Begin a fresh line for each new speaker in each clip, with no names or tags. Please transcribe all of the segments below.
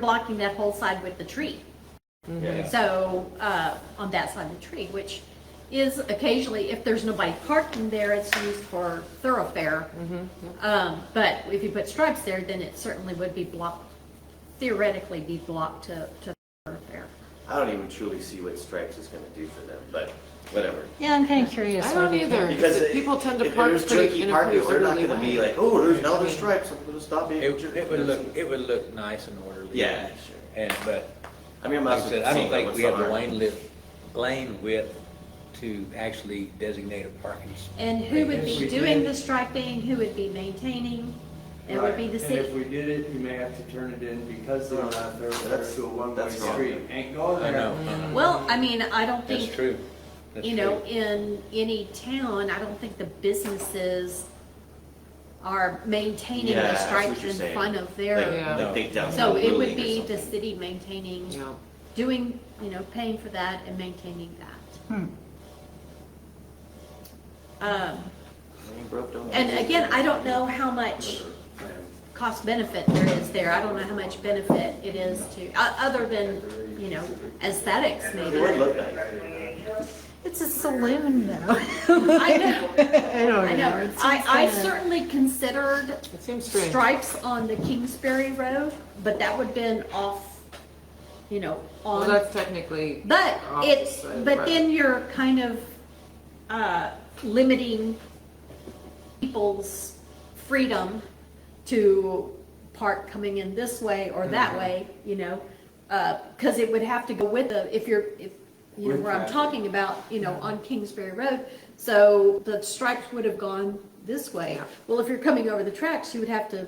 blocking that whole side with the tree.
Yeah.
So, uh, on that side of the tree, which is occasionally, if there's nobody parking there, it's used for thoroughfare. Um, but if you put stripes there, then it certainly would be blocked, theoretically be blocked to, to thoroughfare.
I don't even truly see what stripes is going to do for them, but whatever.
Yeah, I'm kind of curious.
I don't either.
Because
Because
it-
people tend to
if
park
there's
pretty
junky
in a
parking,
pretty
They're not
orderly
going to be
way.
like, oh, there's now
I
there's
mean-
stripes. I'm going to stop being.
It, it would look,
jerky."
it would look nice and orderly.
Yeah.
And, but,
I mean, I'm
like
not
I
saying
said, I don't think
what's
we have the
harm.
lane width, lane width to actually designate a parking spot.
And who would be doing the striping, who would be maintaining, it would be the
Right, And if
city.
we did it, you may have to turn it in because they're not there,
That's-
they're to a one-way
that's wrong.
street. Ain't going
I
there.
know, I know.
Well, I mean, I don't think.
that's true. That's
you know,
true.
in any town, I don't think the businesses are maintaining
Yeah,
the
that's what
stripes
you're
in
saying.
front of
Like,
their.
Yeah.
like they down
So
the
it would
building or
be the
something.
city maintaining,
Yeah.
doing, you know, paying for that and maintaining that. Um,
I mean, broke down.
And again, I don't know how much cost benefit there is there. I don't know how much benefit it is to, o- other than, you know, aesthetics
It
maybe.
would look nice.
It's a saloon though.
I know.
I
I
don't
know. I, I certainly considered
It seems strange.
stripes on the Kingsbury Road, but that would've been off, you know,
Well,
on.
that's technically.
But it's,
opposite,
but
right.
then you're kind of, uh, limiting people's freedom to park coming in this way or that
Mm-hmm.
way, you know? Uh, cause it would have to go with the, if you're, if, you know,
With
where I'm
traffic.
talking about, you know,
Mm-hmm.
on Kingsbury Road. So the stripes would have gone this way.
Yeah.
Well, if you're coming over the tracks, you would have to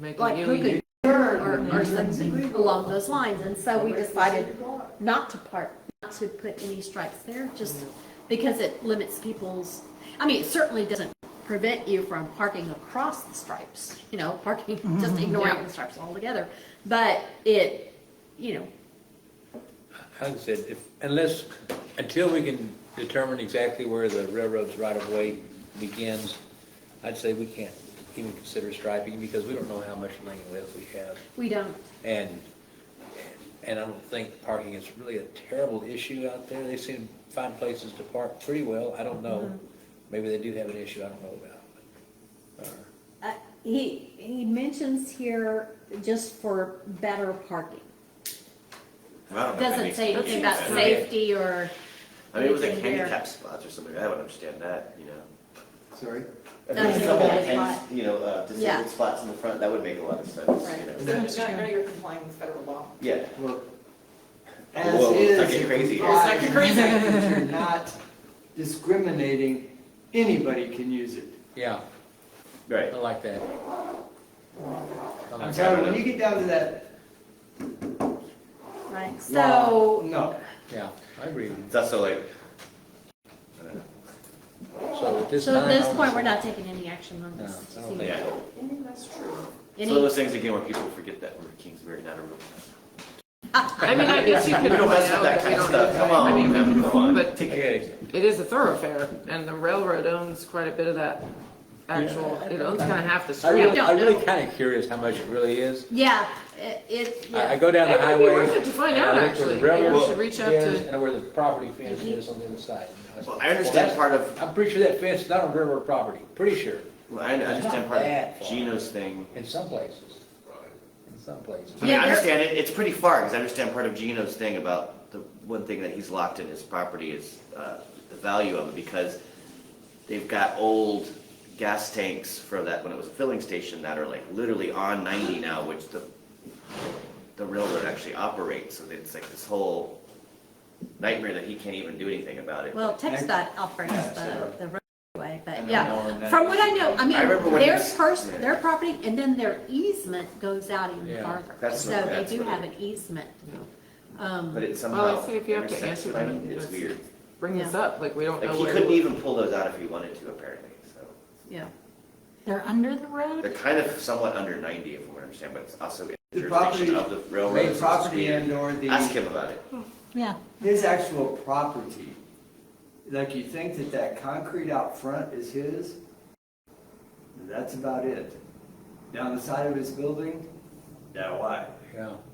Make
like
a
who
U-turn.
could turn or, or something along those lines, and so we decided not to park, not to put any stripes there, just because it limits people's, I mean, it certainly doesn't prevent you from parking across the stripes, you know, parking, just ignoring
Yeah.
the stripes altogether, but it, you know,
Like I said, if, unless, until we can determine exactly where the railroad's right of way begins, I'd say we can't even consider striping because we don't know how much lane width we have.
we don't,
And, and I don't think parking is really a terrible issue out there. They seem to find places to park pretty well. I don't
Mm-hmm.
know. Maybe they do have an issue I don't know about.
Uh, He, he mentions here just for better parking,
Well, I don't know if that
doesn't
makes
say
sense.
anything about
Yeah.
safety or.
I mean, it was like
anything there.
handicap spots or something. I would understand that, you know.
Sorry?
If there was
That's
a couple
a
of hand-
spot.
You know, uh,
Yeah.
disabled spots in the front, that would make a lot of sense, you
Right.
know.
That's
Now
true.
now you're complying with federal law.
Yeah.
Well, as
Whoa, it's not
is.
getting crazy.
It's not getting crazy.
You're not discriminating, anybody can use it.
Yeah, I
Right.
like that. I like
I'm
that.
sorry, when you get down to that,
Right,
law,
so,
no.
Yeah, I agree.
It's also like, uh, I don't know.
So at this
so at
time.
this point, we're not taking any action on
No,
this.
I don't
Yeah.
And then that's true.
It's
Any-
one of those things again where people forget that we're Kingsbury, not a real.
I mean, I guess you could.
We don't
point
mess with
out
that
we
kind of
don't have
stuff.
that.
Come on,
I mean,
man, come on.
But
Take
Okay,
it is a thoroughfare and the railroad owns quite a bit of that actual, it owns kind of half the
I
street.
really,
don't
I really
know.
kind of curious how much it really is.
Yeah, it, it,
I, I
yeah.
go down the
It would be
highway.
worth it to find
and I
out,
look where
actually.
the
Maybe we
railroad
should reach out
is
to,
And where the property fence is on the other side.
Well, I understand
that's-
part of-
I'm pretty sure that fence is not on railroad property, pretty sure,
Well, I I understand
not
part
that
of
far.
Gino's thing.
in some places. In some places.
I mean,
Yeah,
I
there-
understand it, it's pretty far, because I understand part of Gino's thing about the one thing that he's locked in his property is, uh, the value of it, because they've got old gas tanks from that, when it was a filling station, that are like literally on ninety now, which the, the railroad actually operates, so it's like this whole nightmare that he can't even do anything about it.
Well, TechStot operates
Yeah,
the,
so-
the roadway, but
don't know on
yeah.
that.
From what I know, I mean,
I remember when
their
this-
first,
yeah.
their property and then their easement goes out even
Yeah.
farther.
That's
So
what-
they
that's
do
what it-
have an easement.
But it
Well,
somehow
I say if you have to
intersects
answer
with it.
them,
It's
it's-
weird.
bring this up, like we don't
Like
know
he
where.
couldn't even pull those out if he wanted to, apparently. So
Yeah.
They're under the
they're
road?
kind of somewhat under 90, if I understand, but it's also in
The
jurisdiction
property-
of the railroad.
The property and or the.
Ask him about it.
Yeah.
His actual property, like you think that that concrete out front is his, that's about it. Down the side of his building, that wide.
Yeah,